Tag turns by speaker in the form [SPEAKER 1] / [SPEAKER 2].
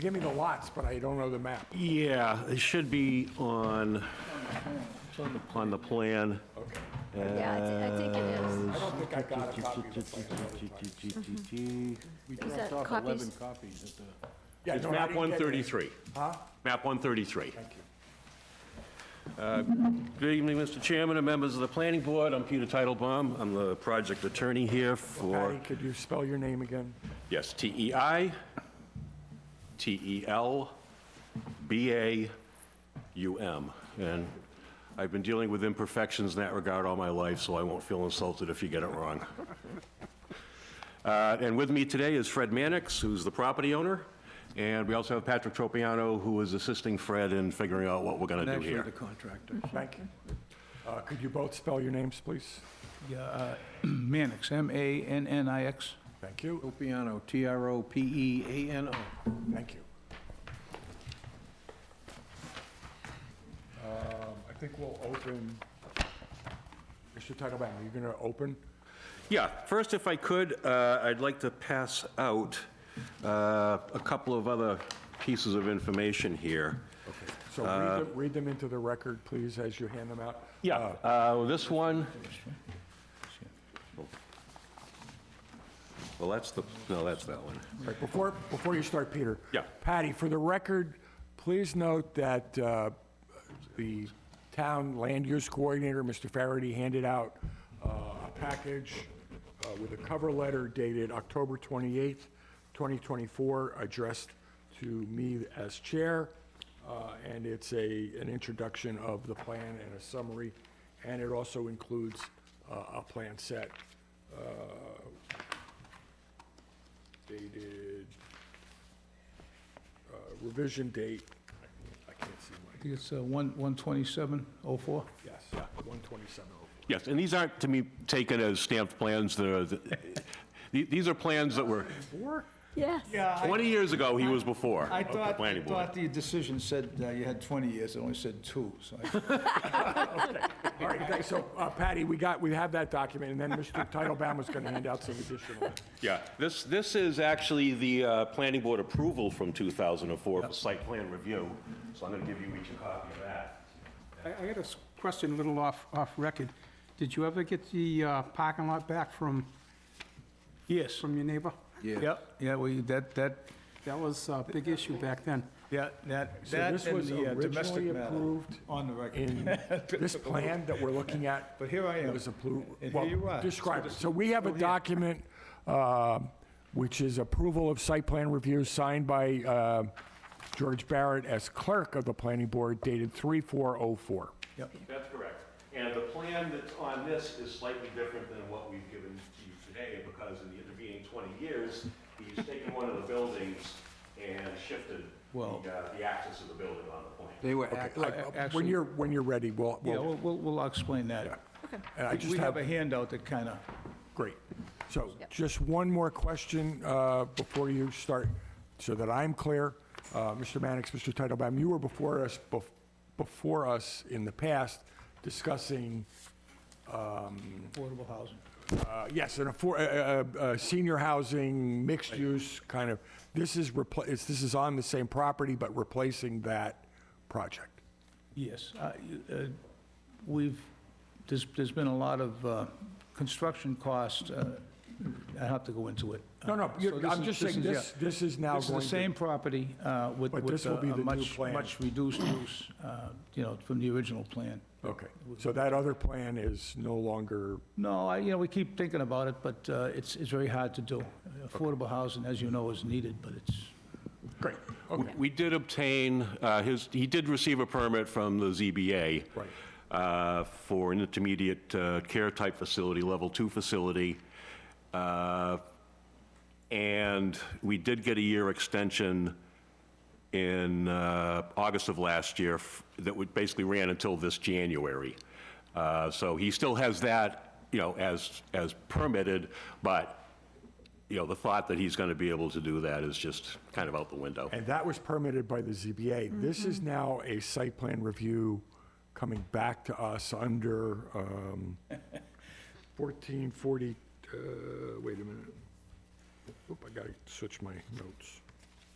[SPEAKER 1] give me the lots, but I don't know the map.
[SPEAKER 2] Yeah, it should be on, on the plan.
[SPEAKER 3] Yeah, I thi- I think it is.
[SPEAKER 1] I don't think I got a copy of the plan.
[SPEAKER 4] We
[SPEAKER 3] Is that
[SPEAKER 4] dropped off
[SPEAKER 3] copies?
[SPEAKER 4] 11 copies at the...
[SPEAKER 1] Yeah,
[SPEAKER 2] It's
[SPEAKER 1] no, I
[SPEAKER 2] map
[SPEAKER 1] didn't get that.
[SPEAKER 2] 133.
[SPEAKER 1] Huh?
[SPEAKER 2] Map 133.
[SPEAKER 1] Thank you.
[SPEAKER 2] Good evening, Mr. Chairman and members of the planning board. I'm Peter Titlebaum. I'm the project attorney here for,
[SPEAKER 1] Patty, could you spell your name again?
[SPEAKER 2] yes, E T-E-I, T-E-L, B-A-U-M. And I've been dealing with imperfections in that regard all my life, so I won't feel insulted if you get it wrong. Uh, And with me today is Fred Mannix, who's the property owner, and we also have Patrick Tropiano, who is assisting Fred in figuring out what we're going to do
[SPEAKER 4] Actually,
[SPEAKER 2] here.
[SPEAKER 4] the contractor.
[SPEAKER 1] Thank you. Uh, Could you both spell your names, please?
[SPEAKER 5] Yeah, uh, Mannix, M-A-N-N-I-X.
[SPEAKER 1] Thank you,
[SPEAKER 4] Tropiano,
[SPEAKER 5] E.
[SPEAKER 4] T-R-O-P-E-A-N-O.
[SPEAKER 1] thank you. Um, I think we'll open, Mr. Titlebaum, are you going to open?
[SPEAKER 2] Yeah, first, if I could, uh, I'd like to pass out uh, a couple of other pieces of information here.
[SPEAKER 1] So
[SPEAKER 2] Uh,
[SPEAKER 1] read them- read them into the record, please, as you hand them out. Uh,
[SPEAKER 2] Uh, This one... Well, that's the, no, that's that one.
[SPEAKER 1] Right, Before, before you start, Peter.
[SPEAKER 2] Yeah.
[SPEAKER 1] Patty, for the record, please note that uh, the town land use coordinator, Mr. Faraday, handed out uh, a package uh, with a cover letter dated October 28th, 2024, addressed to me as chair, uh, and it's a, an introduction of the plan and a summary, and it also includes uh, a plan set dated, uh, revision date, I can't- I can't see
[SPEAKER 5] I
[SPEAKER 1] my,
[SPEAKER 5] think it's uh, one- 12704.
[SPEAKER 1] yes, 127.
[SPEAKER 2] Yes, and these aren't, to me, taken as stamped plans, they're, the- the- these are plans that were,
[SPEAKER 3] Yes.
[SPEAKER 5] Yeah,
[SPEAKER 2] 20 years ago, he was before,
[SPEAKER 5] I
[SPEAKER 2] of the
[SPEAKER 5] thought, I
[SPEAKER 2] planning board.
[SPEAKER 5] thought the decision said uh, you had 20 years, it only said two, so I
[SPEAKER 1] All right, okay, so uh, Patty, we got, we have that document, and then Mr. Titlebaum was going to hand out some additional.
[SPEAKER 2] Yeah, this, this is actually the uh, planning board approval from 2004 for site plan review, so I'm going to give you each a copy of that.
[SPEAKER 6] I I got a s- question, a little off, off record. Did you ever get the uh, parking lot back from,
[SPEAKER 5] Yes.
[SPEAKER 6] from your neighbor?
[SPEAKER 5] Yep, yeah, we, that, that,
[SPEAKER 6] That was a big issue back then.
[SPEAKER 5] yeah, that,
[SPEAKER 1] So
[SPEAKER 5] that
[SPEAKER 1] this
[SPEAKER 5] and
[SPEAKER 1] was
[SPEAKER 5] the uh, domestic
[SPEAKER 1] originally
[SPEAKER 5] matter
[SPEAKER 1] approved
[SPEAKER 5] on the record.
[SPEAKER 1] In this plan that we're looking at.
[SPEAKER 5] But here I am,
[SPEAKER 1] It was approved.
[SPEAKER 5] and here you are.
[SPEAKER 1] Describe it. So we have a document, uh, which is approval of site plan review signed by uh, George Barrett as clerk of the planning board dated 3404.
[SPEAKER 5] Yep.
[SPEAKER 2] That's correct. And the plan that's on this is slightly different than what we've given to you today, because in the intervening 20 years, he's taken one of the buildings and shifted the,
[SPEAKER 4] Well-
[SPEAKER 2] uh, the axis of the building on the plan.
[SPEAKER 4] They were
[SPEAKER 1] Okay,
[SPEAKER 4] act-
[SPEAKER 1] I-
[SPEAKER 5] a-
[SPEAKER 1] uh, When
[SPEAKER 5] actually-
[SPEAKER 1] you're, when you're ready, we'll,
[SPEAKER 5] Yeah,
[SPEAKER 1] we'll,
[SPEAKER 5] we'll, we'll we'll explain that.
[SPEAKER 1] and I
[SPEAKER 5] We-
[SPEAKER 1] just
[SPEAKER 5] We
[SPEAKER 1] have
[SPEAKER 5] have a handout that kind of,
[SPEAKER 1] Great. So just one more question uh, before you start, so that I'm clear. Uh, Mr. Mannix, Mr. Titlebaum, you were before us, bef- before us in the past discussing,
[SPEAKER 5] affordable housing.
[SPEAKER 1] uh, yes, an affor- uh, uh, uh, senior housing, mixed use kind of, this is, repla- it's- this is on the same property, but replacing that project.
[SPEAKER 5] Yes, I- uh, we've, there's, there's been a lot of uh, construction costs, uh, I have to go into it.
[SPEAKER 1] No, no,
[SPEAKER 5] Uh,
[SPEAKER 1] you're-
[SPEAKER 5] so this
[SPEAKER 1] I'm
[SPEAKER 5] is-
[SPEAKER 1] just
[SPEAKER 5] this
[SPEAKER 1] saying
[SPEAKER 5] is, yeah.
[SPEAKER 1] this- this is now
[SPEAKER 5] This is the
[SPEAKER 1] going to-
[SPEAKER 5] same property uh, with,
[SPEAKER 1] But
[SPEAKER 5] with
[SPEAKER 1] this will
[SPEAKER 5] a-
[SPEAKER 1] be
[SPEAKER 5] a
[SPEAKER 1] the new
[SPEAKER 5] much,
[SPEAKER 1] plan.
[SPEAKER 5] much reduced use, uh, you know, from the original plan.
[SPEAKER 1] Okay. So that other plan is no longer,
[SPEAKER 5] No, I, you know, we keep thinking about it, but uh, it's, it's very hard to do. Affordable housing, as you know, is needed, but it's,
[SPEAKER 1] great.
[SPEAKER 2] We- We did obtain, uh, his, he did receive a permit from the ZBA.
[SPEAKER 1] Right.
[SPEAKER 2] uh, For an intermediate uh, care type facility, level two facility. Uh, And we did get a year extension in uh, August of last year f- that would basically ran until this January. Uh, So he still has that, you know, as, as permitted, but, you know, the thought that he's going to be able to do that is just kind of out the window.
[SPEAKER 1] And that was permitted by the ZBA. This is now a site plan review coming back to us under um, 1440, uh, wait a minute. Oop, I gotta switch my notes.